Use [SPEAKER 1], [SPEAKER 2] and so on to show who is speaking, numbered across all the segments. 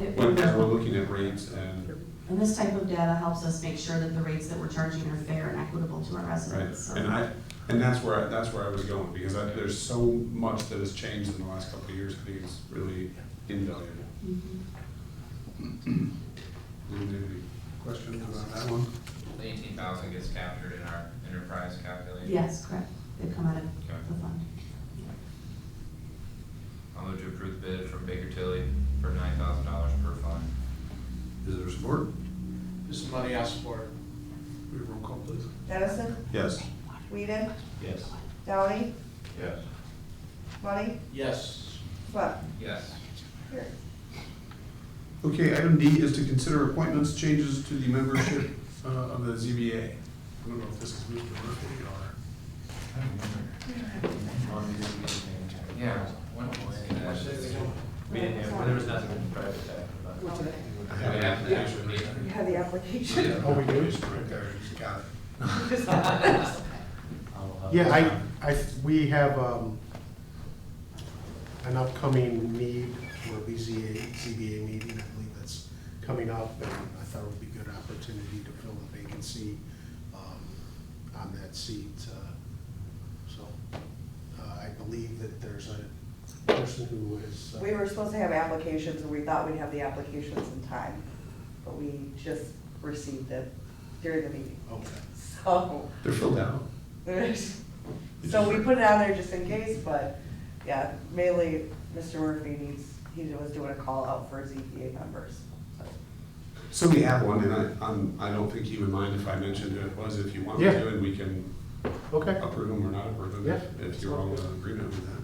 [SPEAKER 1] It-
[SPEAKER 2] Because we're looking at rates and,
[SPEAKER 1] And this type of data helps us make sure that the rates that we're charging are fair and equitable to our
[SPEAKER 2] right,
[SPEAKER 1] residents, so.
[SPEAKER 2] and I, and that's where, I- that's where I was going, because I, there's so much that has changed in the last couple of years, I think it's really invaluable.
[SPEAKER 1] Mhm.
[SPEAKER 2] Any questions about that one?
[SPEAKER 3] The eighteen thousand gets captured in our enterprise calculation?
[SPEAKER 1] Yes, correct, they come out of
[SPEAKER 3] Okay.
[SPEAKER 1] the fund.
[SPEAKER 3] I'll move to approve the bid from Baker Tilly for nine thousand dollars per fund.
[SPEAKER 2] Is there support?
[SPEAKER 4] This is money I support.
[SPEAKER 2] We have roll call, please.
[SPEAKER 5] Dennison,
[SPEAKER 2] Yes.
[SPEAKER 5] Whedon,
[SPEAKER 3] Yes.
[SPEAKER 5] Downey,
[SPEAKER 3] Yes.
[SPEAKER 5] Money,
[SPEAKER 4] Yes.
[SPEAKER 5] Swett.
[SPEAKER 3] Yes.
[SPEAKER 5] Here.
[SPEAKER 2] Okay, item D is to consider appointments, changes to the membership uh, of the ZBA. I don't know if this is Mr. Murphy or.
[SPEAKER 3] Yeah, when did we see that?
[SPEAKER 6] We didn't have, there was nothing in the private pack about it.
[SPEAKER 2] I
[SPEAKER 3] We have to actually meet.
[SPEAKER 5] You have the application.
[SPEAKER 2] Yeah.
[SPEAKER 7] Oh, we do?
[SPEAKER 2] Right there, just got it.
[SPEAKER 6] I'll, uh,
[SPEAKER 7] Yeah, I, I, we have, um, an upcoming need for a BZA, ZBA meeting, I believe that's coming up, and I thought it would be a good opportunity to fill the vacancy, um, on that seat, uh, so, uh, I believe that there's a person who is. uh,
[SPEAKER 5] We were supposed to have applications, and we thought we'd have the applications in time, but we just received it during the meeting.
[SPEAKER 7] Okay.
[SPEAKER 5] So,
[SPEAKER 2] They're filled out.
[SPEAKER 5] there's, so we put it on there just in case, but, yeah, mainly, Mr. Murphy needs, he was doing a call out for ZPA members, so.
[SPEAKER 2] So we have one, and I, I'm, I don't think you would mind if I mentioned who it was, if you want me
[SPEAKER 7] Yeah.
[SPEAKER 2] to, and we can
[SPEAKER 7] Okay,
[SPEAKER 2] approve them or not approve them, if-
[SPEAKER 7] Yeah.
[SPEAKER 2] if you're all in agreement with that.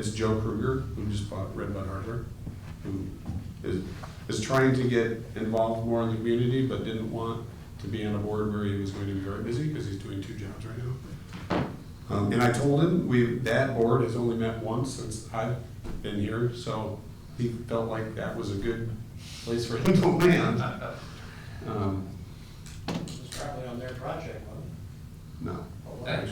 [SPEAKER 2] It's Joe Kruger, who just bought Red Bud Hardware, who is, is trying to get involved more in the community, but didn't want to be on a board where he was going to be very busy, because he's doing two jobs right now. Um, and I told him, we, that board has only met once since I've been here, so he felt like that was a good place for him to land. Um,
[SPEAKER 4] It's probably on their project, wasn't
[SPEAKER 2] no.
[SPEAKER 3] That-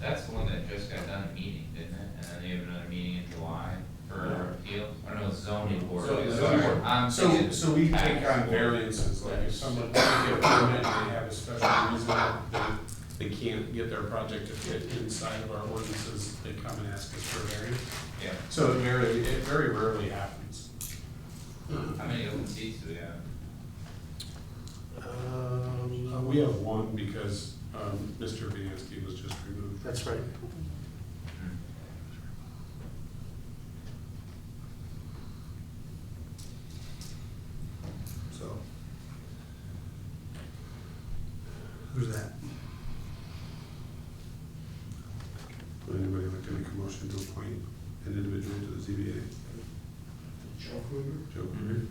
[SPEAKER 3] That's the one that just got done a meeting, didn't it? And then they have another meeting in July for a appeal, I don't know, zoning board.
[SPEAKER 2] So-
[SPEAKER 3] Sorry, I'm
[SPEAKER 2] So,
[SPEAKER 3] thinking
[SPEAKER 2] so we take
[SPEAKER 3] tax
[SPEAKER 2] on
[SPEAKER 3] board.
[SPEAKER 2] variances, like if someone can't get a permit, and they have a special reason, that they can't get their project to fit inside of our ordinances, they come and ask us for a variance.
[SPEAKER 3] Yeah,
[SPEAKER 2] So it very, it very rarely happens.
[SPEAKER 3] how many open seats do we have?
[SPEAKER 2] Uh,
[SPEAKER 7] um,
[SPEAKER 2] We have one because, um, Mr. Viancy was just removed.
[SPEAKER 7] that's right.
[SPEAKER 3] Hmm.
[SPEAKER 2] So. Who's that? Would anybody like to make a motion to appoint an individual to the ZBA?
[SPEAKER 4] it? Joe Kruger.
[SPEAKER 2] Joe
[SPEAKER 6] Mm-hmm.
[SPEAKER 2] Kruger?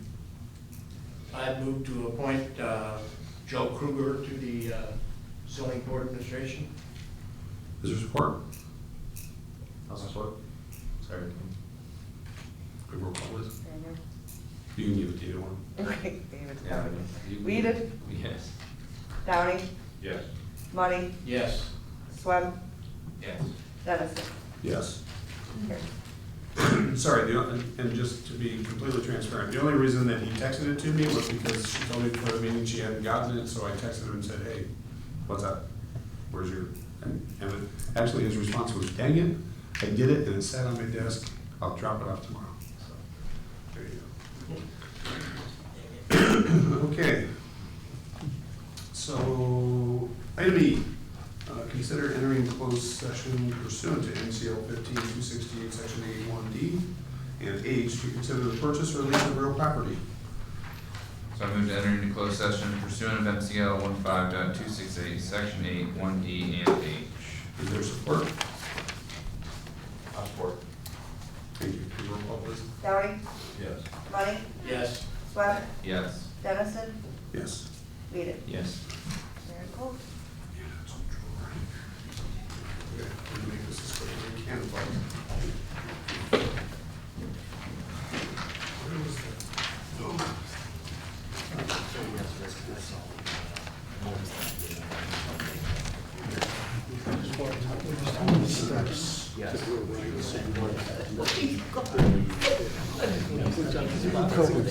[SPEAKER 4] I move to appoint uh, Joe Kruger to the uh, zoning board administration.
[SPEAKER 2] Is there support?
[SPEAKER 6] I'll support. Sorry.
[SPEAKER 2] Good roll call, Liz.
[SPEAKER 5] Mhm.
[SPEAKER 2] You can give it to either one.
[SPEAKER 5] Okay, David's
[SPEAKER 3] Yeah,
[SPEAKER 5] coming.
[SPEAKER 3] Um, you-
[SPEAKER 5] Whedon,
[SPEAKER 3] Yes.
[SPEAKER 5] Downey,
[SPEAKER 3] Yes.
[SPEAKER 5] Money,
[SPEAKER 4] Yes.
[SPEAKER 5] Swem,
[SPEAKER 3] Yes.
[SPEAKER 5] Dennison.
[SPEAKER 2] Yes.
[SPEAKER 5] Here.
[SPEAKER 2] Sorry, the, only- and just to be completely transparent, the only reason that he texted it to me was because she told me before the meeting she hadn't gotten it, so I texted her and said, hey, what's up? Where's your, and, and it- actually his response was, dang it, I did it and it sat on my desk, I'll drop it off tomorrow. So, There you go. Okay. So, item E, uh, consider entering closed session pursuant to MCL fifteen two sixty-eight, section eighty-one D and H to consider the purchase or lease of real property.
[SPEAKER 3] So I move to enter into closed session pursuant of MCL 15.268, section eight, one D and H.
[SPEAKER 2] Is there support?
[SPEAKER 6] I'll support.
[SPEAKER 2] Thank you. Can you roll call, please?
[SPEAKER 5] Downey,
[SPEAKER 6] Yes.
[SPEAKER 5] Money,
[SPEAKER 4] Yes.
[SPEAKER 5] Swem,
[SPEAKER 3] Yes.
[SPEAKER 5] Dennison,
[SPEAKER 2] Yes.
[SPEAKER 5] Whedon.
[SPEAKER 3] Yes.
[SPEAKER 5] Mayor Cole.
[SPEAKER 2] Yeah, that's what I'm trying to- Okay, I'm gonna make this as quick as I can, but- Where was that? Oh.
[SPEAKER 7] Steps.
[SPEAKER 8] COVID.